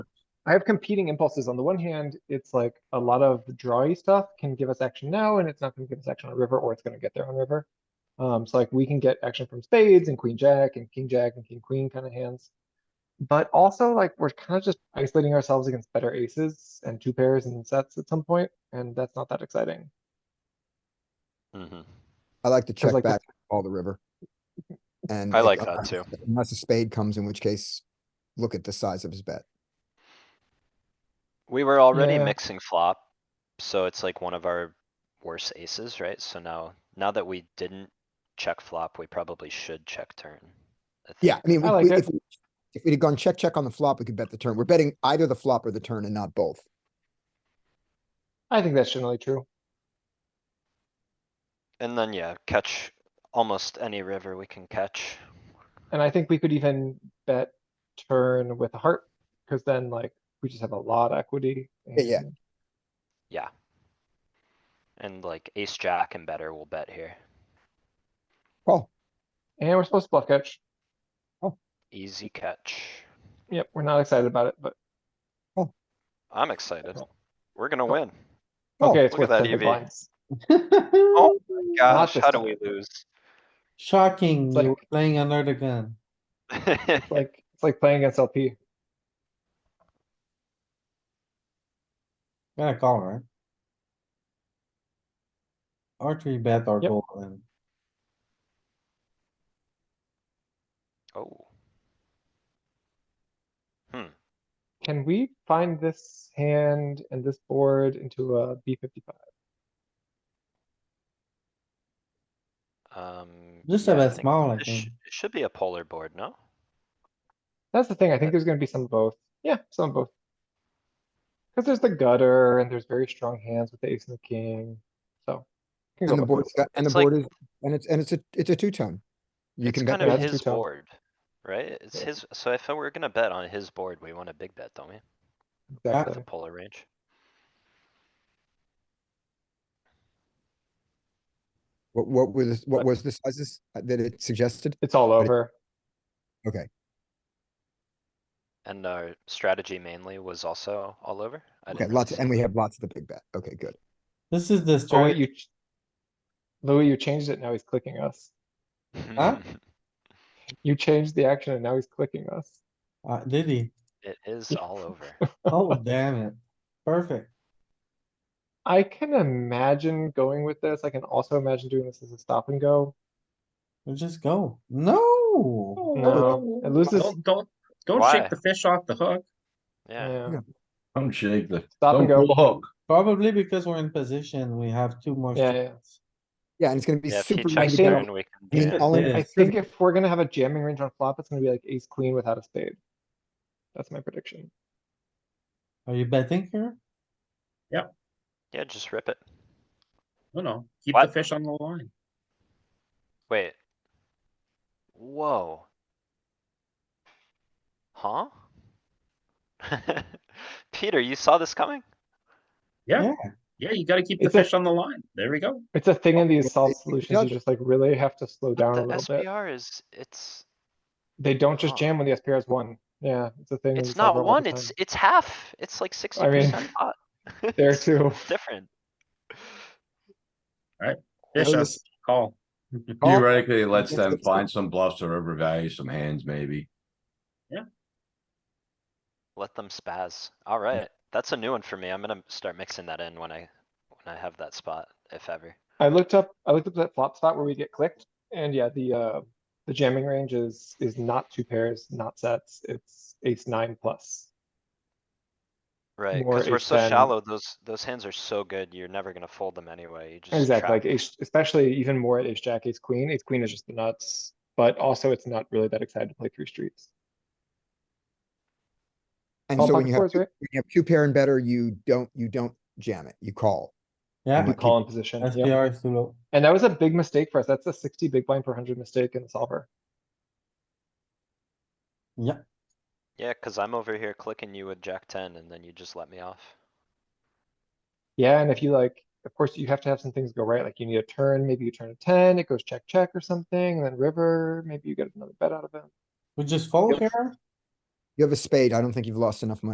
I have competing impulses. On the one hand, it's like a lot of drawy stuff can give us action now, and it's not gonna give us action on river, or it's gonna get there on river. Um, so like we can get action from spades and queen jack and king jack and king queen kind of hands. But also like we're kind of just isolating ourselves against better aces and two pairs and sets at some point, and that's not that exciting. Mhm. I like to check like the- back all the river. And. I if- like that too. Unless a spade comes, in which case, look at the size of his bet. We were already Yeah. mixing flop, so it's like one of our worst aces, right? So now, now that we didn't check flop, we probably should check turn. I Yeah, I think. mean, I like we- we- it. if, if we'd have gone check, check on the flop, we could bet the turn. We're betting either the flop or the turn and not both. I think that's generally true. And then, yeah, catch almost any river we can catch. And I think we could even bet turn with a heart, because then like we just have a lot of equity. yeah. and- Yeah. And like ace jack and better will bet here. Call. And we're supposed to bluff catch. Easy catch. Yep, we're not excited about it, but I'm excited. We're gonna win. Call. okay, it's look worth at that E ten big EV. blinds. Oh my gosh, this how do time. we lose? Shocking, It's you like- were playing under the gun. It's Like, it's like playing against LP. Gotta call, right? Or three bet or Yep. go in. Oh, Can we find this hand and this board into a B fifty-five? um. Just yeah, have I a think small, I this sh- think. It should be a polar board, no? That's the thing, I think there's gonna be some of both. Yeah, some of both. Cause there's the gutter and there's very strong hands with the ace and the king, so. can go And the both board's ways. got, and the It's like- board is, and it's, and it's a, it's a two-tone. You It's can kind bet of that's that. two his tone. board, right? It's Yeah. his, so if we're gonna bet on his board, we want a big bet, don't we? With a Exactly. polar range. What, what were the, But- what was the sizes uh, that it suggested? It's all it- over. Okay, And our strategy mainly was also all over? I okay, didn't lots, really and see we it. have lots of the big bet. Okay, good. This is the Oh, wait, story. you. ch- Louis, you changed it, now he's clicking us. Huh? You changed the action and now he's clicking us. Uh, did he? It is Yeah. all over. Oh, damn it. Perfect. I can imagine going with this, I can also imagine doing this as a stop and go. We just go. No. No, it loses, Don't, don't, don't Why? shake the fish off the hook. Yeah, yeah, Yeah. Don't shake the, stop don't and go, pull the hook. Probably because we're in position, we have two more. Yeah, yeah. shots. Yeah, and it's gonna be yeah, if he super. checks think- turn, we I can, mean, yeah. all in, Yeah. I think if we're gonna have a jamming range on flop, it's gonna be like ace queen without a spade. That's my prediction. Are you betting here? yeah, just rip it. No, no, keep the What? fish on the line. Wait. Whoa. Huh? Peter, you saw this coming? Yeah, yeah, you gotta keep the It's a- fish on the line. There we go. It's a thing in these solved it's- solutions, you just like really have to slow But down a the little bit. SPR is, it's, They don't just Oh. jam when the SPR is one. Yeah, it's a thing. in it's these solved not all one, the it's, time. it's half. It's like sixty percent pot. There It's too. Different. Fish Notice- us, call. Call. Theoretically, it lets Yes, them that's good. find some bluffs or overvalue some hands maybe. Let them spaz. Alright, that's a new one for me. I'm gonna start mixing that in when I, when I have that spot, if ever. I looked up, I looked up that flop spot where we get clicked, and yeah, the, uh, the jamming range is, is not two pairs, not sets, it's ace nine plus. Right, More cuz we're ace so ten. shallow, those, those hands are so good, you're never gonna fold them anyway. You just Exactly, trap like ace, especially even more at ace jack, ace queen, ace queen is just the nuts, but also it's not really that excited to play through streets. And All so when pocket you have, fours, two- right? when you have two pair and better, you don't, you don't jam it, you call. Yeah, You call in position, yeah. SPR is too low. And that was a big mistake for us, that's a sixty big blind per hundred mistake in the solver. Yeah, Yeah, cuz I'm over here clicking you with jack ten and then you just let me off. Yeah, and if you like, of course, you have to have some things go right, like you need a turn, maybe you turn a ten, it goes check, check or something, and then river, maybe you get another bet out of it. we just fold here. You have a spade, I don't think you've lost enough money